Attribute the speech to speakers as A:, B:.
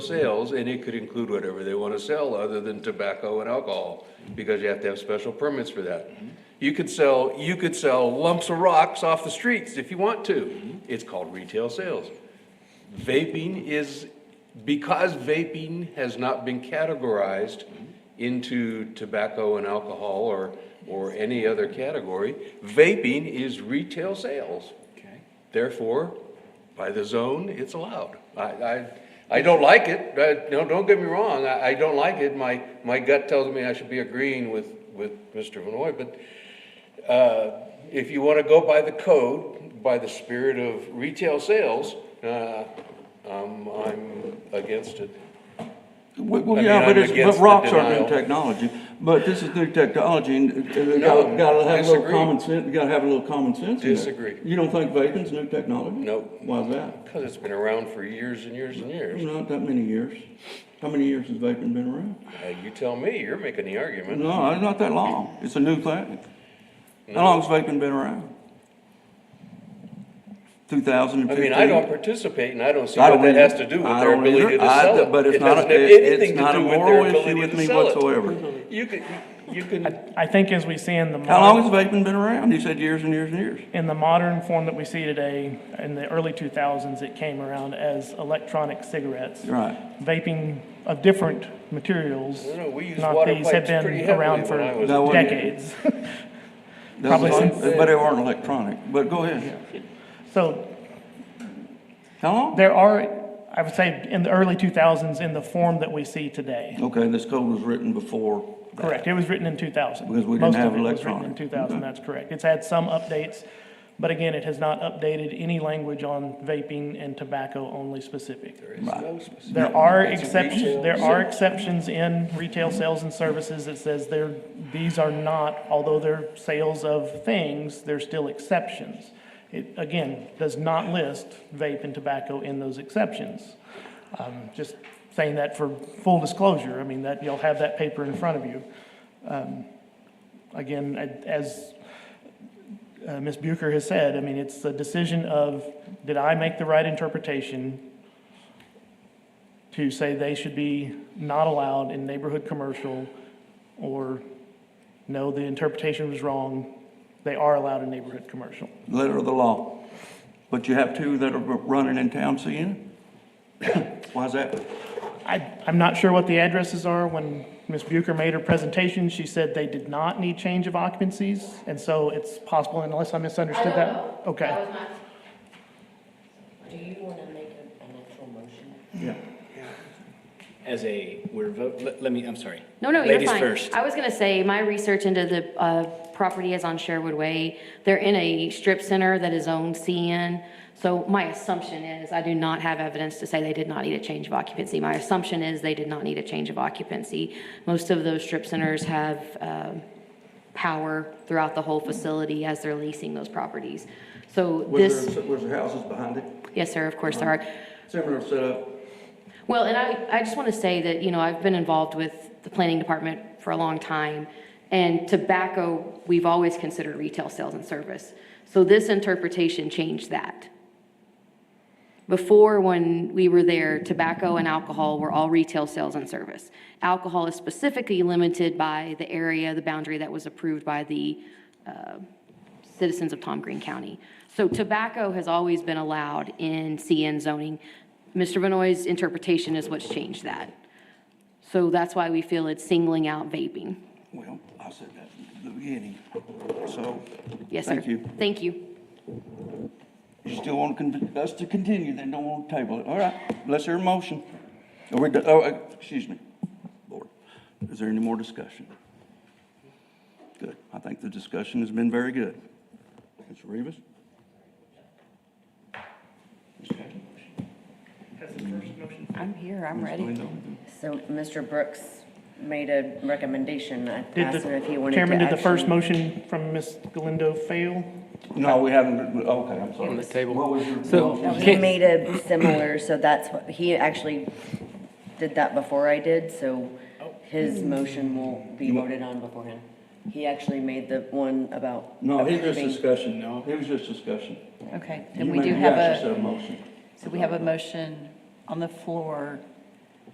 A: sales, and it could include whatever they want to sell other than tobacco and alcohol, because you have to have special permits for that. You could sell, you could sell lumps of rocks off the streets if you want to. It's called retail sales. Vaping is, because vaping has not been categorized into tobacco and alcohol or, or any other category, vaping is retail sales.
B: Okay.
A: Therefore, by the zone, it's allowed. I, I, I don't like it, uh, no, don't get me wrong, I, I don't like it, my, my gut tells me I should be agreeing with, with Mr. Vanoy, but, uh, if you wanna go by the code, by the spirit of retail sales, uh, um, I'm against it.
B: Well,
A: I
B: well,
A: mean,
B: yeah,
A: I'm
B: but it's,
A: against
B: but
A: the
B: rocks are
A: denial.
B: new technology, but this is new technology, and uh, you
A: No,
B: gotta, gotta have a little
A: disagree.
B: common sense, you gotta have a little common sense in there.
A: Disagree.
B: You don't think vaping's new technology?
A: Nope.
B: Why's that?
A: Cause it's been around for years and years and years.
B: Not that many years. How many years has vaping been around?
A: Uh, you tell me, you're making the argument.
B: No, it's not that long. It's a new thing. How long's vaping been around? Two thousand and
A: I
B: fifteen?
A: mean, I don't participate and I don't see
B: I
A: what
B: don't
A: that
B: either.
A: has to do with
B: I
A: their
B: don't
A: ability
B: either.
A: to
B: I-
A: sell it.
B: But
A: It
B: it's not, a-
A: doesn't have
B: it-
A: anything
B: it's not
A: to
B: a
A: do with
B: moral
A: their
B: issue
A: ability
B: with
A: to
B: me
A: sell it.
B: whatsoever.
A: You can, you can,
C: I think as we see in the
B: How long
C: modern,
B: has vaping been around? You said years and years and years.
C: in the modern form that we see today, in the early 2000s, it came around as electronic cigarettes.
B: Right.
C: Vaping of different materials,
A: No, no, we used
C: not
A: water
C: these, have
A: pipes pretty
C: been
A: heavily
C: around for
A: when I was
B: a kid.
C: decades.
B: That
C: Probably
B: was-
C: since-
B: But they weren't electronic. But go ahead.
C: So
B: How long?
C: there are, I would say, in the early 2000s, in the form that we see today.
B: Okay, this code was written before. that.
C: Correct, it was written in 2000.
B: Because we didn't
C: Most of
B: have
C: it was written
B: electronic.
C: In 2000,
B: Okay.
C: that's correct. It's had some updates, but again, it has not updated any language on vaping and tobacco-only specific. There are exceptions, there are exceptions in retail sales and services that says there, these are not, although they're sales of things, they're still exceptions. It, again, does not list vape and tobacco in those exceptions. Um, just saying that for full disclosure, I mean, that, you'll have that paper in front of you. Um, Again, a- as uh, Ms. Bucher has said, I mean, it's the decision of, did I make the right interpretation? to say they should be not allowed in neighborhood commercial, or no, the interpretation was wrong, they are allowed in neighborhood commercial.
B: Letter of the law. But you have two that are running in town seeing it? Why's that?
C: I, I'm not sure what the addresses are. When Ms. Bucher made her presentation, she said they did not need change of occupancies, and so it's possible, unless I misunderstood
D: I
C: that.
D: don't know. That
C: Okay.
D: was my- Do you want to make a- an actual motion?
B: Yeah.
E: as a, we're, vo- let let me, I'm sorry.
D: No, no, you're
E: Ladies
D: fine.
E: first.
D: I was going to say, my research into the uh, property is on Sherwood Way. They're in a strip center that is owned CN. So my assumption is, I do not have evidence to say they did not need a change of occupancy. My assumption is they did not need a change of occupancy. Most of those strip centers have um, power throughout the whole facility as they're leasing those properties. So
B: Was
D: this,
B: there, was there houses behind it?
D: yes, sir, of course there are.
B: Similar setup?
D: Well, and I, I just want to say that, you know, I've been involved with the planning department for a long time, and tobacco, we've always considered retail sales and service. So this interpretation changed that. Before, when we were there, tobacco and alcohol were all retail sales and service. Alcohol is specifically limited by the area, the boundary that was approved by the uh, citizens of Tom Green County. So tobacco has always been allowed in CN zoning. Mr. Benoit's interpretation is what's changed that. So that's why we feel it's singling out vaping.
B: Well, I said that at the beginning, so.
D: Yes, sir.
B: Thank you.
D: Thank you.
B: You still want to con- us to continue, then don't want to table it. All right, let's hear a motion. Are we, do- oh, uh, excuse me, board. Is there any more discussion? Good. I think the discussion has been very good. Ms. Rivas?
F: I'm here, I'm
B: Ms.
F: ready.
B: Linda?
F: So Mr. Brooks made a recommendation. I
C: Did
F: asked him if he
C: the,
F: wanted to
C: Chairman, did the first
F: actually-
C: motion from Ms. Galindo fail?
B: No, we haven't, okay, I'm sorry. What was your-
F: No, He made a similar, so that's what, he actually did that before I did, so his motion will be voted on before him. He actually made the one about.
B: No, he was
F: approving-
B: discussion. No. He was just discussion.
G: Okay,
B: You
G: then we
B: made-
G: do
B: you
G: have
B: actually said
G: a,
B: motion.
G: so we have a motion on the floor